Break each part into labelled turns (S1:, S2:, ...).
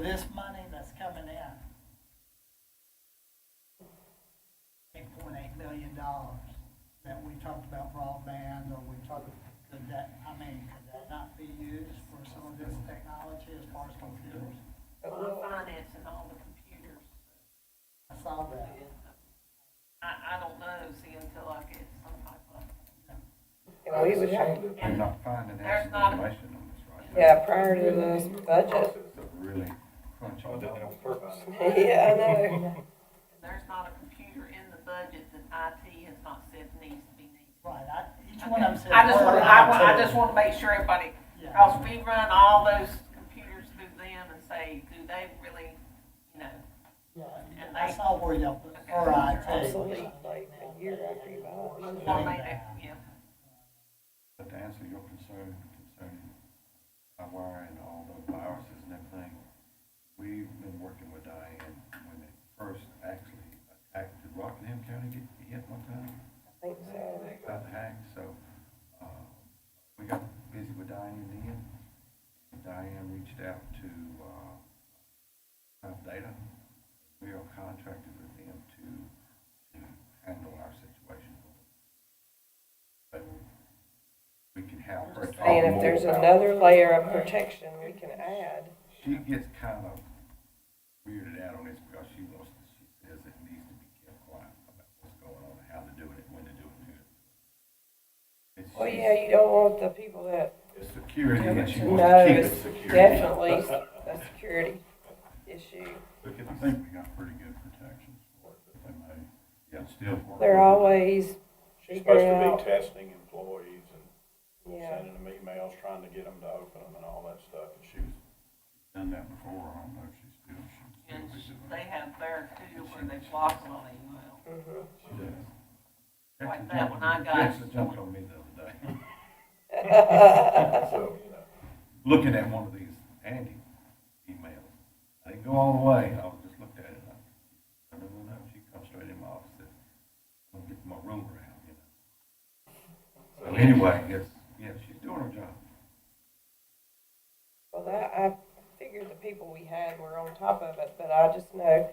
S1: this money that's coming in. Eight point eight million dollars that we talked about broadband, or we talked, could that, I mean, could that not be used for some of this technology as far as computers?
S2: Well, finance and all the computers.
S1: I saw that.
S2: I, I don't know, see, until I get some type of,
S3: And we would have, to-
S4: They're not finding
S2: There's
S4: any
S2: not a-
S4: information on this right now.
S3: yeah, prior to the budget,
S4: But Really crunch on
S5: did it on
S4: dollars.
S5: purpose.
S3: yeah, I know.
S2: there's not a computer in the budget that IT has not said needs to be needed.
S1: Right, I, each one of them said.
S2: I just
S1: one
S2: want, I,
S1: item.
S2: wa- I just want to make sure everybody,
S1: Yeah.
S2: because we run all those computers through them and say, do they really, you know,
S1: Yeah, I saw where y'all, put-
S2: Okay.
S1: all right,
S3: Absolutely, like a year after you buy it.
S2: or they, they- yeah.
S4: But to answer your concern concerning wire and all the viruses and everything, we've been working with Diane when it first actually attacked, did Rockingham County get hit one time?
S3: I think so.
S4: Got hacked, so, uh, we got busy with Diane then. Diane reached out to, uh, Top Data. We are contracted with them to, to handle our situation. So, we can help her talk more
S3: And if there's
S4: about-
S3: another layer of protection we can add,
S4: She gets kind of weirded out on this because she wants, to- she says it needs to be kept quiet about what's going on, how to do it, when to do it, and who. to do it. It's
S3: well, yeah, you don't want the people that
S4: just Security, and she wants
S3: know
S4: to keep it
S3: it's
S4: security.
S3: definitely a security issue.
S4: Look, I think we got pretty good protections for it, but they may, yeah, still. work with
S3: They're
S4: it.
S3: always,
S5: She's
S3: Figure
S5: supposed to
S3: out.
S5: be testing employees and
S3: Yeah.
S5: sending them emails, trying to get them to open them and all that stuff, and she was
S4: Done that before, I don't know if she's still, she's
S2: And
S4: still be
S2: they
S4: doing it.
S2: have their too where they block them on email.
S3: mhm.
S4: She does.
S2: Like
S4: Jackson
S2: that
S4: jumped-
S2: one I got.
S4: Jackson jumped on me the other day.
S5: so, you know.
S4: looking at one of these Andy emails. I didn't go all the way. I was just looked at it. And I, I don't know. She comes straight in my office. And I'm gonna get my room around, you know. So anyway, it's yeah, she's doing her job.
S3: Well, that, I figured the people we had were on top of it, but I just know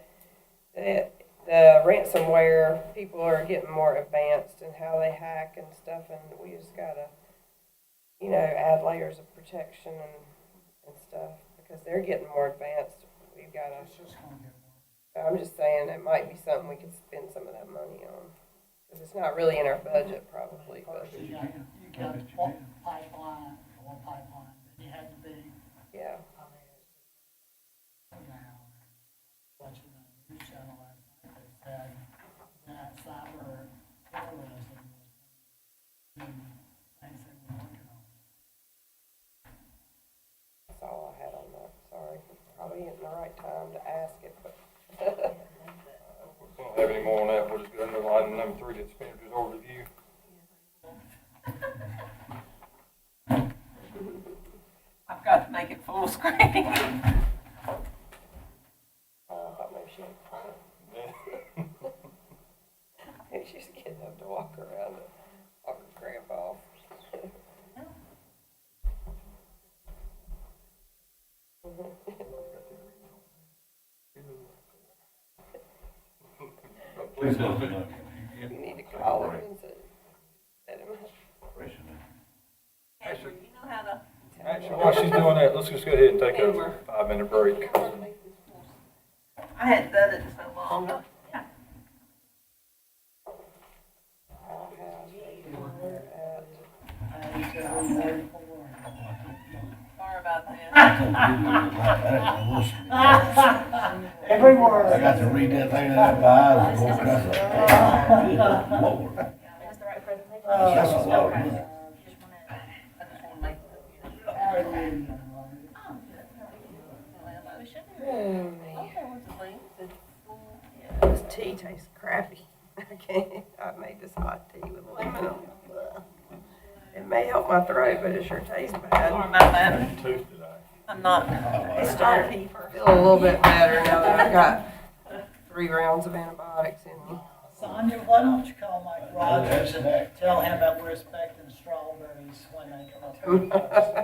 S3: that the ransomware, people are getting more advanced in how they hack and stuff, and we just gotta, you know, add layers of protection and, and stuff, because they're getting more advanced. We've gotta,
S1: It's just gonna get worse.
S3: I'm just saying, it might be something we could spend some of that money on, because it's not really in our budget probably, but,
S1: First, you
S4: You
S1: got,
S4: can.
S1: you
S4: I
S1: got
S4: bet you
S1: one
S4: can.
S1: pipeline, one pipeline, and you had to be,
S3: yeah.
S1: I mean, it's now, watching the news channel last night, they said that cyber terrorism was one of the things they were working on.
S3: That's all I had on that, sorry. Probably isn't the right time to ask it, but.
S6: We don't have any more on that, we'll just go under item number three, the expenditures overview.
S2: I've got to make it full screen.
S3: Uh, I thought maybe she had a cramp. Maybe she's getting up to walk around and walk her cramp off.
S4: Please let us know.
S3: You need to call her and say, let him,
S4: Operation and-
S2: Ashley, you know how to.
S6: Actually, while she's doing that, let's just go ahead and take a
S2: Hammer.
S6: five-minute break.
S2: I hadn't done it in so long.
S3: I'll have, we're at,
S1: Page, uh, forty-four.
S2: Sorry about that.
S1: Every
S7: I
S1: word.
S7: got to read that thing in that by eye. That's a- Lord,
S8: That's the right presentation.
S7: that's a lot of money.
S8: You just wanna-
S2: I just want to make.
S1: Hallelujah, Lord.
S2: Emotion.
S3: oh man,
S2: Okay, what's the link? The full- yeah.
S3: this tea tastes crappy. I can't, I made this hot tea with lemon on it. Ugh. It may help my throat, but it sure tastes
S2: Sorry
S3: bad.
S2: about that.
S5: Tooth today.
S2: I'm not.
S3: I
S2: It's
S3: started
S2: not paper.
S3: Feel a little bit better now that I got three rounds of antibiotics in me.
S1: Sonia, why don't you call Mike Rogers
S7: That's
S1: and
S7: next.
S1: tell him that we're expecting strawberries when they come up.